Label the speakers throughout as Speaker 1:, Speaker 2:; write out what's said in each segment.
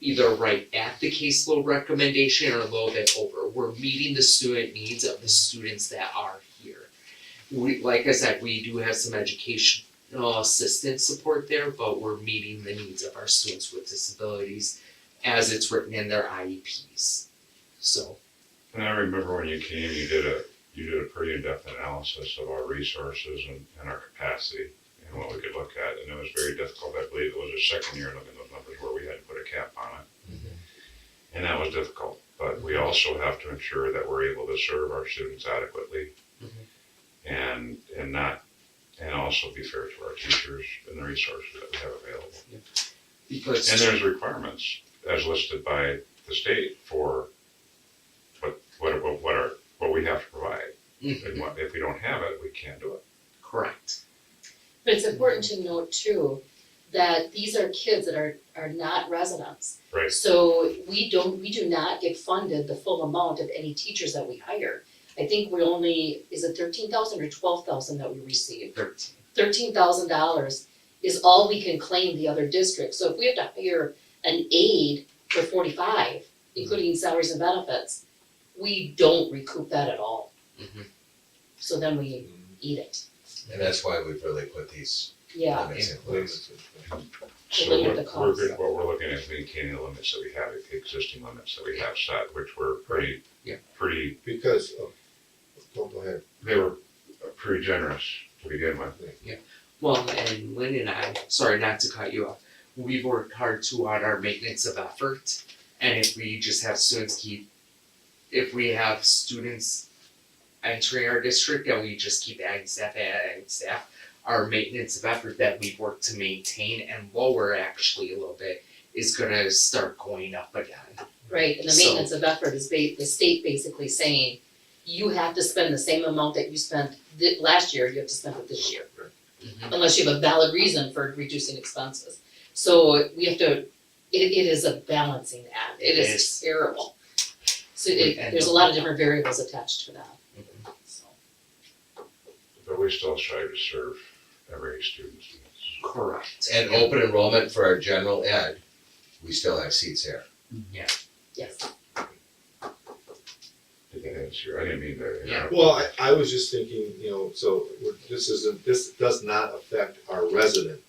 Speaker 1: either right at the caseload recommendation or a little bit over. We're meeting the student needs of the students that are here. We, like I said, we do have some educational assistance support there, but we're meeting the needs of our students with disabilities as it's written in their IEPs. So,
Speaker 2: And I remember when you came, you did a, you did a pretty in-depth analysis of our resources and, and our capacity and what we could look at, and it was very difficult, I believe it was our second year looking at those numbers where we had to put a cap on it.
Speaker 1: Mhm.
Speaker 2: And that was difficult, but we also have to ensure that we're able to serve our students adequately
Speaker 1: Mhm.
Speaker 2: and, and not, and also be fair to our teachers and the resources that we have available.
Speaker 1: because.
Speaker 2: And there's requirements as listed by the state for what, what, what- what are, what we have to provide.
Speaker 1: Mhm.
Speaker 2: And what, if we don't have it, we can't do it.
Speaker 1: Correct.
Speaker 3: But it's important to note too, that these are kids that are, are not residents.
Speaker 2: Right.
Speaker 3: So we don't, we do not get funded the full amount of any teachers that we hire. I think we only, is it thirteen thousand or twelve thousand that we receive?
Speaker 1: Thirteen.
Speaker 3: Thirteen thousand dollars is all we can claim the other districts. So if we have to hire an aide for forty-five, including salaries and benefits, we don't recoup that at all.
Speaker 1: Mhm.
Speaker 3: So then we eat it,
Speaker 4: And that's why we've really put these
Speaker 3: yeah.
Speaker 4: limits in place.
Speaker 3: To
Speaker 2: So
Speaker 3: limit
Speaker 2: what-
Speaker 3: the
Speaker 2: we're,
Speaker 3: cost.
Speaker 2: good- what we're looking at is maintaining the limits that we have, the existing limits that we have set, which were pretty,
Speaker 1: Yeah.
Speaker 2: pretty,
Speaker 4: Because, oh, go ahead.
Speaker 2: they were pretty generous to begin with.
Speaker 1: Well, and Lynn and I, sorry not to cut you off, we've worked hard too on our maintenance of effort. And if we just have students keep, if we have students entering our district and we just keep adding staff, adding staff, our maintenance of effort that we've worked to maintain and lower actually a little bit is gonna start going up again.
Speaker 3: Right, and the
Speaker 1: So-
Speaker 3: maintenance of effort is ba- the state basically saying, you have to spend the same amount that you spent thi- last year, you have to spend it this year.
Speaker 5: Mm-hmm.
Speaker 1: Mhm.
Speaker 3: Unless you have a valid reason for reducing expenses. So we have to, it it is a balancing act,
Speaker 1: It
Speaker 3: it
Speaker 1: is.
Speaker 3: is terrible. So
Speaker 1: We
Speaker 3: it,
Speaker 1: end
Speaker 3: there's a
Speaker 1: up-
Speaker 3: lot of different variables attached to that, so.
Speaker 2: But we still strive to serve every student's needs.
Speaker 1: Correct.
Speaker 4: And open enrollment for our general ed, we still have seats there.
Speaker 5: Mm-hmm.
Speaker 1: Yeah.
Speaker 3: Yes,
Speaker 2: Did that answer? your- I didn't mean to.
Speaker 1: Yeah.
Speaker 5: Well, I, I was just thinking, you know, so we're- this isn't, this does not affect our resident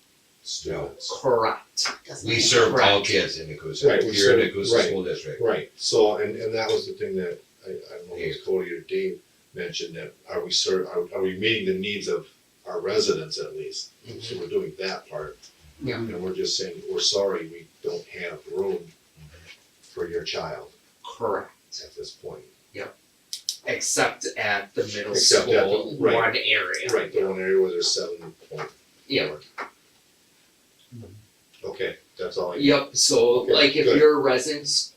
Speaker 5: students.
Speaker 1: Correct.
Speaker 3: doesn't
Speaker 4: We
Speaker 3: matter.
Speaker 4: serve all
Speaker 1: Right.
Speaker 4: kids in Nacusa,
Speaker 5: Right, we
Speaker 4: here in
Speaker 5: serve-
Speaker 4: Nacusa
Speaker 5: right.
Speaker 4: School District.
Speaker 5: Right, so, and, and that was the thing that, I, I don't know if it was Cody or Dave mentioned, that are we serve, are, are we meeting the needs of our residents at least? So we're doing that part.
Speaker 1: Yeah.
Speaker 5: And we're just saying, we're sorry, we don't have room for your child
Speaker 1: Correct.
Speaker 5: at this point.
Speaker 1: Except at the middle
Speaker 5: Except at the-
Speaker 1: school,
Speaker 5: right.
Speaker 1: one area.
Speaker 5: Right, the one area where there's seven point.
Speaker 1: Yeah.
Speaker 5: four. Mm-hmm. Okay, that's all I.
Speaker 1: Yep, so
Speaker 5: Okay,
Speaker 1: like if
Speaker 5: good.
Speaker 1: you're a resident,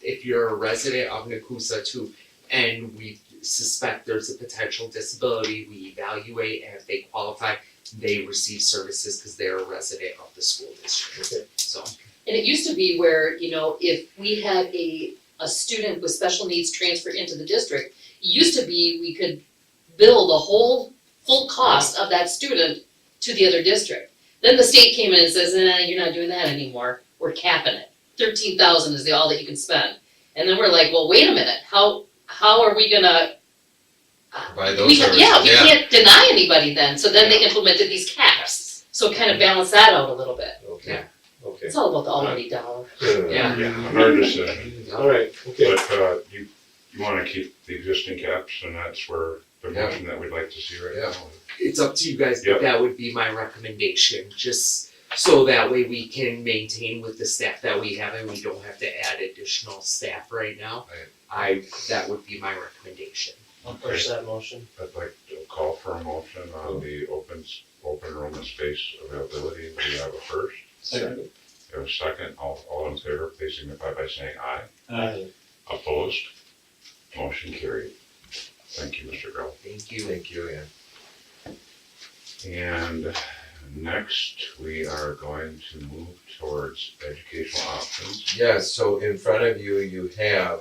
Speaker 1: if you're a resident of Nakusa too, and we suspect there's a potential disability, we evaluate and if they qualify, they receive services because they're a resident of the school district,
Speaker 5: Okay.
Speaker 1: so.
Speaker 3: And it used to be where, you know, if we had a, a student with special needs transfer into the district, it used to be we could bill the whole, full cost of that student to the other district. Then the state came in and says, nah, you're not doing that anymore, we're capping it, thirteen thousand is the all that you can spend. And then we're like, well, wait a minute, how, how are we gonna?
Speaker 4: By those
Speaker 3: We,
Speaker 4: services,
Speaker 3: yeah, we
Speaker 4: yeah.
Speaker 3: can't deny anybody then, so then they implemented these caps, so kind of balance that out a little bit,
Speaker 5: Okay,
Speaker 1: Yeah.
Speaker 5: okay.
Speaker 3: it's all about the almighty dollar.
Speaker 1: Yeah.
Speaker 2: Yeah, hard decision.
Speaker 5: All right, okay,
Speaker 2: But uh, you, you wanna keep the existing caps and that's where the
Speaker 4: Yeah.
Speaker 2: motion that we'd like to see right
Speaker 4: Yeah.
Speaker 2: now.
Speaker 1: It's up to you guys, but
Speaker 2: Yep.
Speaker 1: that would be my recommendation, just so that way we can maintain with the staff that we have and we don't have to add additional staff right now.
Speaker 4: Right.
Speaker 1: I, that would be my recommendation.
Speaker 6: I'll push that motion.
Speaker 2: I'd like to call for a motion on the open, s- open enrollment space availability. We have a first,
Speaker 6: Second.
Speaker 2: we have a second. All, all in favor, please signify by saying aye.
Speaker 6: Aye.
Speaker 2: Opposed? Motion carried. Thank you, Mr. Grell.
Speaker 1: Thank you.
Speaker 4: Thank you, Ann.
Speaker 2: And next, we are going to move towards educational options.
Speaker 4: Yes, so in front of you, you have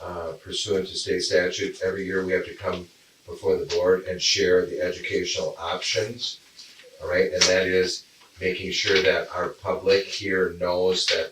Speaker 4: uh, pursuant to state statute, every year we have to come before the board and share the educational options. All right, and that is making sure that our public here knows that